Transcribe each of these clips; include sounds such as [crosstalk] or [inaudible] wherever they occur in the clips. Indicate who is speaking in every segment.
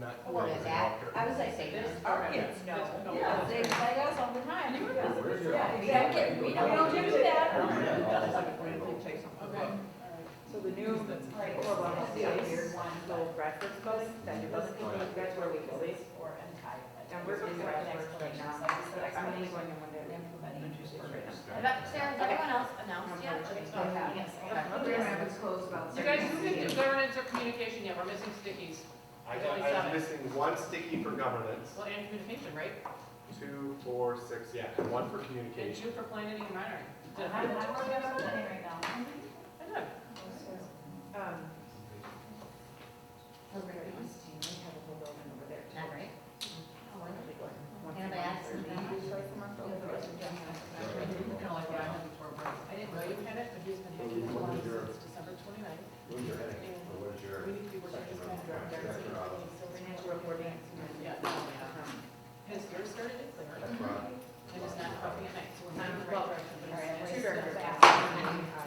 Speaker 1: not.
Speaker 2: Oh,
Speaker 3: What is that? I was like,
Speaker 1: Say
Speaker 3: this,
Speaker 1: that.
Speaker 3: our kids know, because they play us all the time. Yeah, exactly, we don't do that.
Speaker 4: Okay.
Speaker 5: So the new, right, or one of the weird one, little breakfast building, that it doesn't people, that's where we go.
Speaker 3: Or entitlement.
Speaker 5: And we're busy right next to it now, I'm only going in one day.
Speaker 2: Sarah, has everyone else announced yet?
Speaker 5: We're gonna have it closed about.
Speaker 4: You guys, who did governance or communication yet? We're missing stickies.
Speaker 6: I got, I was missing one sticky for governance,
Speaker 4: Well, and communication, right?
Speaker 6: two, four, six, yeah, and one for
Speaker 4: And
Speaker 6: communication.
Speaker 4: two for planning and monitoring. Did
Speaker 3: I'm,
Speaker 4: I? I
Speaker 3: I'm working on something right now.
Speaker 4: did.
Speaker 5: Um,
Speaker 3: We're gonna be using- we have a whole building over there.
Speaker 2: Not right?
Speaker 3: Oh, I know they go.
Speaker 5: once
Speaker 2: Anybody
Speaker 5: a month,
Speaker 2: ask
Speaker 5: or
Speaker 2: them?
Speaker 5: maybe it's like from our
Speaker 3: Yeah, the rest of
Speaker 5: phone.
Speaker 3: them have-
Speaker 4: Kinda like what I had before work. I didn't know you had it, but he's been having it long since December twenty-ninth. We need to be working this kind of drug therapy.
Speaker 5: Financial reporting.
Speaker 4: Yeah, no, yeah. Has yours started in clear? I just not coffee at night, so we're not in the right direction,
Speaker 5: All
Speaker 4: but
Speaker 5: right,
Speaker 4: it's.
Speaker 5: two directors.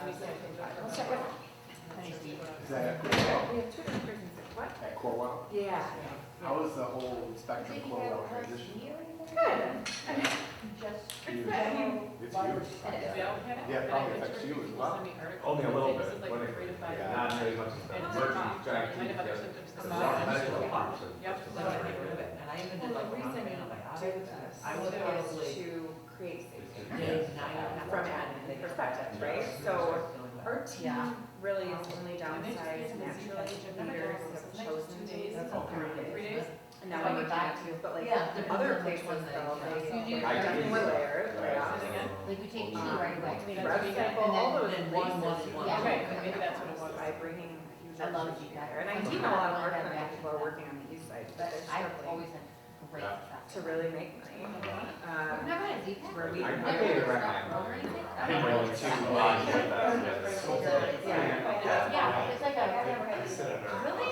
Speaker 7: Is that at Corwell?
Speaker 5: We have two different prisons, what?
Speaker 7: At Corwell?
Speaker 5: Yeah.
Speaker 7: How is the whole spectrum Corwell transition?
Speaker 5: Good.
Speaker 3: Just.
Speaker 7: Huge. It's huge.
Speaker 4: They all had it.
Speaker 7: Yeah, it probably
Speaker 4: And I
Speaker 7: affects
Speaker 4: pictured
Speaker 7: you as
Speaker 4: people
Speaker 7: well.
Speaker 4: sending me articles
Speaker 8: Only a
Speaker 4: and
Speaker 8: little
Speaker 4: saying,
Speaker 8: bit,
Speaker 4: This is like
Speaker 8: but
Speaker 4: a three to five.
Speaker 8: Yeah,
Speaker 4: months.
Speaker 8: not very much.
Speaker 4: And it's
Speaker 8: Emergency
Speaker 4: not-
Speaker 8: track
Speaker 4: you might have other
Speaker 8: team,
Speaker 4: symptoms
Speaker 8: yeah.
Speaker 4: come
Speaker 8: There's a lot
Speaker 4: out.
Speaker 8: of medical
Speaker 4: Yep,
Speaker 8: problems.
Speaker 4: Yep, so I get rid of it.
Speaker 1: And I even
Speaker 5: Well,
Speaker 1: did
Speaker 5: the
Speaker 1: like one on
Speaker 5: reason
Speaker 1: my own,
Speaker 5: to
Speaker 1: like,
Speaker 5: this
Speaker 1: I would
Speaker 5: is
Speaker 1: probably.
Speaker 5: to create safety.
Speaker 1: day nine
Speaker 5: From
Speaker 1: after-
Speaker 5: an perspective, right? So our team
Speaker 2: Yeah.
Speaker 5: really is only downsized
Speaker 4: And they just didn't see
Speaker 5: naturally,
Speaker 4: that.
Speaker 5: leaders
Speaker 4: Next
Speaker 5: have chosen
Speaker 4: two
Speaker 5: to
Speaker 4: days.
Speaker 5: do
Speaker 7: all
Speaker 4: Three days?
Speaker 5: And now we
Speaker 2: Like
Speaker 5: would
Speaker 2: back
Speaker 5: back to, but like
Speaker 2: Yeah,
Speaker 5: the
Speaker 2: depends
Speaker 5: other
Speaker 2: on which
Speaker 5: places
Speaker 2: one they chose.
Speaker 5: though, they
Speaker 4: You do-
Speaker 5: definitely
Speaker 7: Like,
Speaker 5: layer,
Speaker 7: Right.
Speaker 5: yeah.
Speaker 2: Like, we take two
Speaker 5: Um,
Speaker 2: right away.
Speaker 5: I mean,
Speaker 4: That's
Speaker 5: for
Speaker 4: vegan.
Speaker 5: example,
Speaker 2: And then-
Speaker 5: all those
Speaker 1: then one,
Speaker 5: places.
Speaker 1: one, one.
Speaker 2: Yeah.
Speaker 4: Okay, maybe that's what it was.
Speaker 5: By bringing huge
Speaker 2: I love
Speaker 5: numbers
Speaker 2: you.
Speaker 5: together. And I
Speaker 2: I
Speaker 5: do
Speaker 2: do
Speaker 5: know a lot of
Speaker 2: want
Speaker 5: our
Speaker 2: that
Speaker 5: current
Speaker 2: back.
Speaker 5: people are working on the east side, but
Speaker 2: But
Speaker 5: they're
Speaker 2: I've
Speaker 5: struggling
Speaker 2: always had great
Speaker 8: Yeah.
Speaker 2: success.
Speaker 5: to really make money.
Speaker 4: Uh-huh.
Speaker 5: Um,
Speaker 2: We've never had a
Speaker 3: uh,
Speaker 2: Z-Pack.
Speaker 5: Where we.
Speaker 7: I- I think
Speaker 2: Never had a
Speaker 7: it's right
Speaker 2: restaurant
Speaker 7: now.
Speaker 2: roll or anything.
Speaker 8: I think we're only two lines with that.
Speaker 5: Yeah.
Speaker 2: Yeah, it's like
Speaker 3: I've
Speaker 2: a,
Speaker 3: never had these.
Speaker 6: uh,
Speaker 2: Really?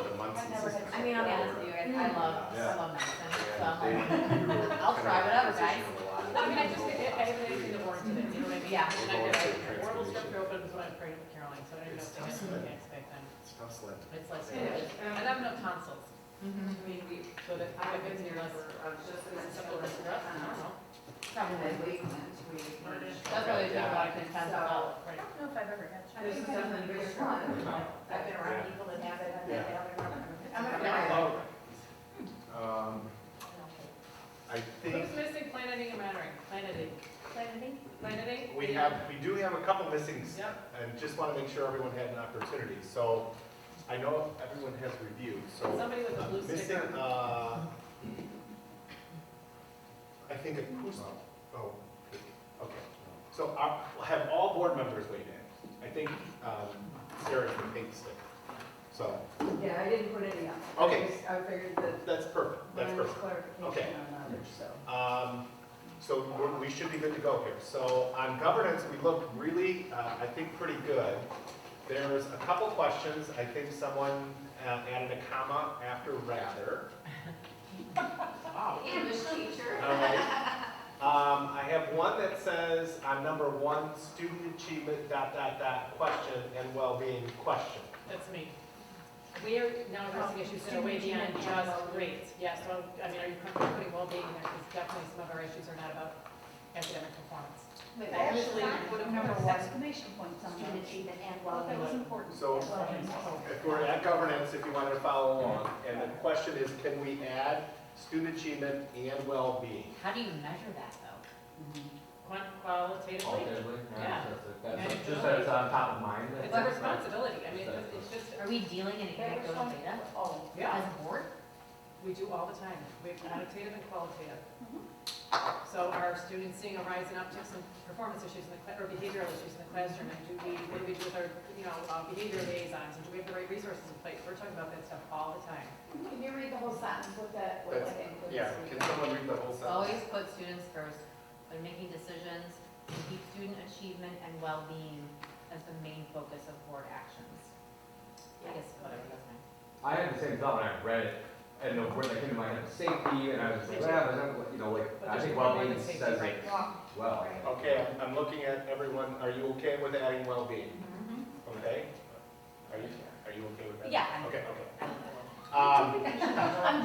Speaker 2: I mean, I'll be honest with you, guys, I love, I love medicine, so I'm like, [laughs]
Speaker 7: I'll
Speaker 2: try whatever, guys. [laughs]
Speaker 4: I mean, I just, I I haven't anything to warrant today, you know what I mean?
Speaker 2: Yeah.
Speaker 4: And I did, like, the Orville strip open is what I'm afraid of Caroline, so I don't even know if they have something next back then. It's less, and I have no tonsils.
Speaker 2: mhm,
Speaker 4: I mean, we, so that I have been here less, some of us are up, I don't know.
Speaker 2: probably. That's
Speaker 4: That's
Speaker 2: what I do
Speaker 4: about
Speaker 2: about
Speaker 4: it,
Speaker 2: it,
Speaker 4: tons of all, right.
Speaker 3: I don't know if I've ever had.
Speaker 5: This is definitely the biggest one.
Speaker 3: I've been around people that have it, I've been
Speaker 2: I'm
Speaker 3: down
Speaker 2: a
Speaker 3: there.
Speaker 2: fan.
Speaker 7: Um,
Speaker 6: I think
Speaker 4: Who's missing planeting and mattering? Planeting,
Speaker 2: Planning?
Speaker 4: planeting?
Speaker 6: we have, we do have a couple missing, s-
Speaker 4: Yep,
Speaker 6: and just want to make sure everyone had an opportunity. So I know everyone has reviewed, so
Speaker 4: somebody with a
Speaker 6: uh,
Speaker 4: blue
Speaker 6: missing,
Speaker 4: sticker.
Speaker 6: uh, I think acoustic, oh, okay. So I- I'll have all board members weighed in. I think um, Sarah's the pink stick. So,
Speaker 3: Yeah, I didn't put any up.
Speaker 6: Okay.
Speaker 3: I figured that.
Speaker 6: that's perfect, that's perfect. Okay. Um, So we're- we should be good to go here. So on governance, we look really, uh, I think, pretty good. There's a couple questions. I think someone uh, added a comma after rather. Wow.
Speaker 3: Oh.
Speaker 2: English teacher.
Speaker 6: All right. Um, I have one that says, on number one, student achievement, dot, dot, dot, question, and well-being, question.
Speaker 4: That's me. We are now addressing issues that are way beyond just grades. Yeah, so, I mean, are you comfortable putting well-being there? Because definitely some of our issues are not about academic performance. I actually would have never won.
Speaker 3: Exclamation points on
Speaker 2: Student achievement and
Speaker 3: Well, that was
Speaker 2: well-being.
Speaker 3: important.
Speaker 6: So-
Speaker 4: Oh,
Speaker 3: Well,
Speaker 6: If we're at governance, if you wanted to follow along, and the question is, can we add student achievement and well-being?
Speaker 2: How do you measure that, though?
Speaker 4: Quant- Qualitatively,
Speaker 8: That's just that it's on top of mind.
Speaker 4: it's a responsibility. I mean, it's it's just,
Speaker 2: Are we dealing in anecdotal data
Speaker 3: Oh,
Speaker 4: yeah.
Speaker 2: as a board?
Speaker 4: We do all the time. We have quantitative and qualitative. So are students seeing a rise in upticks in performance issues in the, cla- or behavioral issues in the classroom? And do we, what do we do with our, you know, uh, behavior liaisons? And do we have the right resources in place? We're talking about that stuff all the time.
Speaker 3: Can you read the whole sentence with that, what
Speaker 6: That's-
Speaker 3: that includes?
Speaker 6: Yeah, can someone read the whole sentence?
Speaker 2: Always put students first when making decisions, and keep student achievement and well-being as the main focus of board actions. I guess whatever, that's fine.
Speaker 8: I had the same thought when I read it, and the word that came to my head was safety, and I was just like, well, I don't- you know, like, I think well-being says it well.
Speaker 6: Okay, I'm- I'm looking at everyone, are you okay with adding well-being? Okay? Are you, are you okay with that?
Speaker 2: Yeah.
Speaker 6: Okay, okay. Um,